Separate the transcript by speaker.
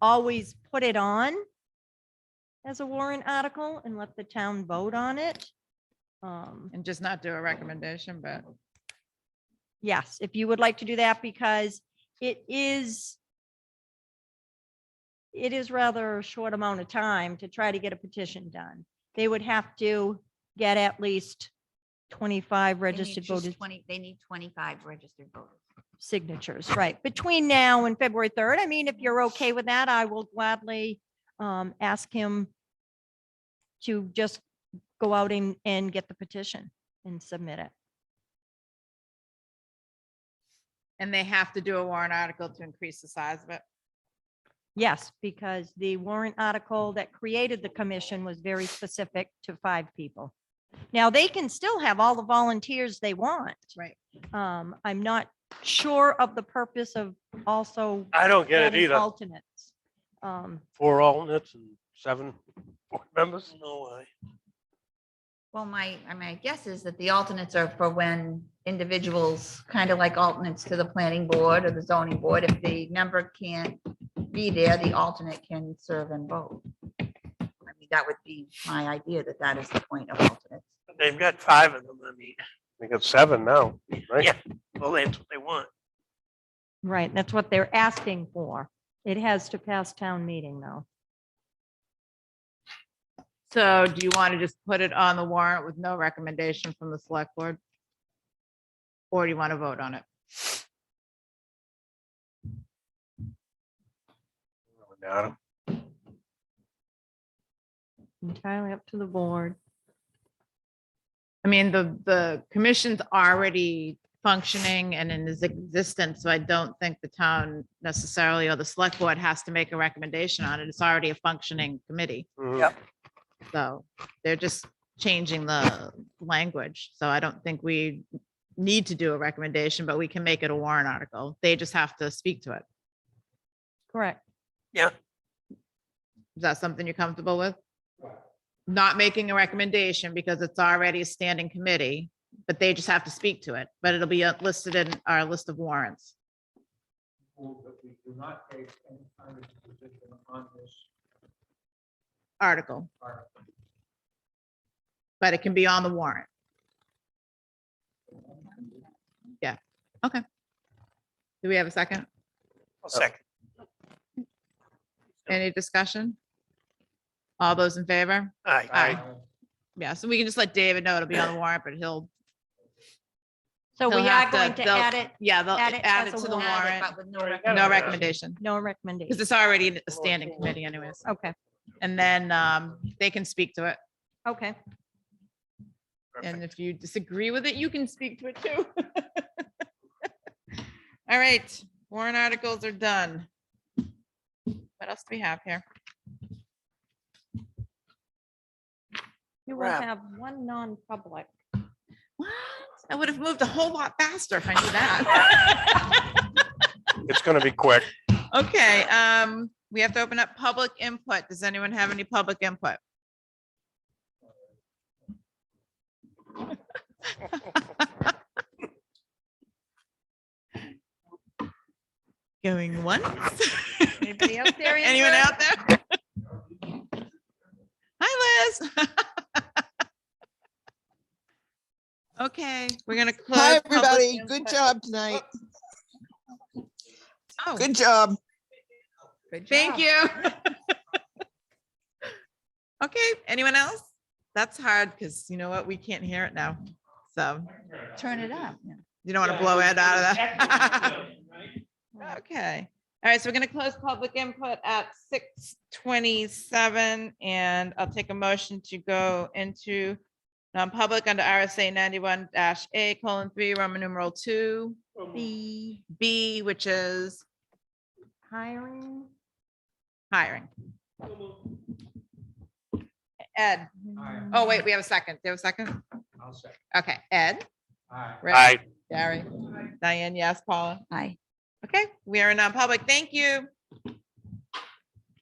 Speaker 1: always put it on as a warrant article and let the town vote on it. Um,
Speaker 2: and just not do a recommendation, but
Speaker 1: Yes, if you would like to do that, because it is it is rather a short amount of time to try to get a petition done. They would have to get at least 25
Speaker 3: They need
Speaker 1: registered
Speaker 3: just
Speaker 1: voters
Speaker 3: Twenty, they need twenty-five registered voters.
Speaker 1: signatures, right? Between now and February 3rd. I mean, if you're okay with that, I will gladly um, ask him to just go out and, and get the petition and submit it.
Speaker 2: and they have to do a warrant article to increase the size of it.
Speaker 1: Yes, because the warrant article that created the commission was very specific to five people. Now, they can still have all the volunteers they want.
Speaker 2: Right.
Speaker 1: Um, I'm not sure of the purpose of also
Speaker 4: I don't get it
Speaker 1: adding
Speaker 4: either.
Speaker 1: alternates. Um,
Speaker 4: Four alternates and seven board members? No way.
Speaker 3: Well, my, I mean, I guess is that the alternates are for when individuals, kind of like alternates to the planning board or the zoning board, if the member can't be there, the alternate can serve and vote. I mean, That would be my idea, that that is the point of alternates.
Speaker 5: They've got five of them, I mean,
Speaker 4: They got seven now, right?
Speaker 5: Yeah. well, that's what they want.
Speaker 1: right, that's what they're asking for. It has to pass town meeting though.
Speaker 2: So do you want to just put it on the warrant with no recommendation from the select board? Or do you want to vote on it?
Speaker 4: Without 'em.
Speaker 1: Entirely up to the board.
Speaker 2: I mean, the, the commission's already functioning and in its existence, so I don't think the town necessarily or the select board has to make a recommendation on it. It's already a functioning committee.
Speaker 4: Mhm.
Speaker 5: Yep.
Speaker 2: So they're just changing the language. So I don't think we need to do a recommendation, but we can make it a warrant article. They just have to speak to it.
Speaker 1: Correct.
Speaker 2: Is that something you're comfortable with? Not making a recommendation because it's already a standing committee, but they just have to speak to it, but it'll be uh, listed in our list of warrants. Article. But it can be on the warrant. Yeah, okay. Do we have a second?
Speaker 5: I'll
Speaker 4: Mm.
Speaker 5: second.
Speaker 2: Any discussion? All those in favor?
Speaker 5: Aye.
Speaker 2: Aye. Yeah, so we can just let David know it'll be on the warrant, but he'll.
Speaker 1: So
Speaker 2: he'll
Speaker 1: we are
Speaker 2: have
Speaker 1: going to
Speaker 2: they'll-
Speaker 1: add it,
Speaker 2: Yeah, they'll
Speaker 1: add it
Speaker 2: add
Speaker 1: as
Speaker 2: it
Speaker 1: a
Speaker 2: to the
Speaker 1: warrant.
Speaker 2: warrant.
Speaker 3: But with no rec-
Speaker 2: No recommendation,
Speaker 1: no
Speaker 2: because
Speaker 1: recommendation.
Speaker 2: it's already a standing committee anyways.
Speaker 1: Okay,
Speaker 2: And then um, they can speak to it.
Speaker 1: okay.
Speaker 2: And if you disagree with it, you can speak to it too. All right, warrant articles are done. What else do we have here?
Speaker 1: You will
Speaker 5: Wrap.
Speaker 1: have one non-public.
Speaker 2: What? I would have moved a whole lot faster if I knew that.
Speaker 4: It's gonna be quick.
Speaker 2: Okay, um, we have to open up public input. Does anyone have any public input? Going once?
Speaker 1: Anybody out there?
Speaker 2: Anyone out there? Hi, Liz. Okay, we're gonna close.
Speaker 6: Hi,
Speaker 2: public
Speaker 6: everybody. Good
Speaker 2: input.
Speaker 6: job tonight.
Speaker 2: Oh.
Speaker 6: Good job.
Speaker 2: Thank you. Okay, anyone else? That's hard because you know what? We can't hear it now. So
Speaker 3: Turn it up. yeah.
Speaker 2: you don't want to blow it out of that. Okay. All right, so we're going to close public input at six twenty-seven and I'll take a motion to go into non-public under RSA ninety-one A colon three, Roman numeral two,
Speaker 1: The
Speaker 2: B, which is
Speaker 1: hiring.
Speaker 2: hiring. Ed? Oh, wait, we have a second. Do you have a second?
Speaker 7: I'll second.
Speaker 2: Okay, Ed?
Speaker 7: Aye.
Speaker 2: Rick,
Speaker 4: Aye.
Speaker 2: Gary? Diane, yes, Paula?
Speaker 3: Aye.
Speaker 2: Okay, we are in non-public. Thank you.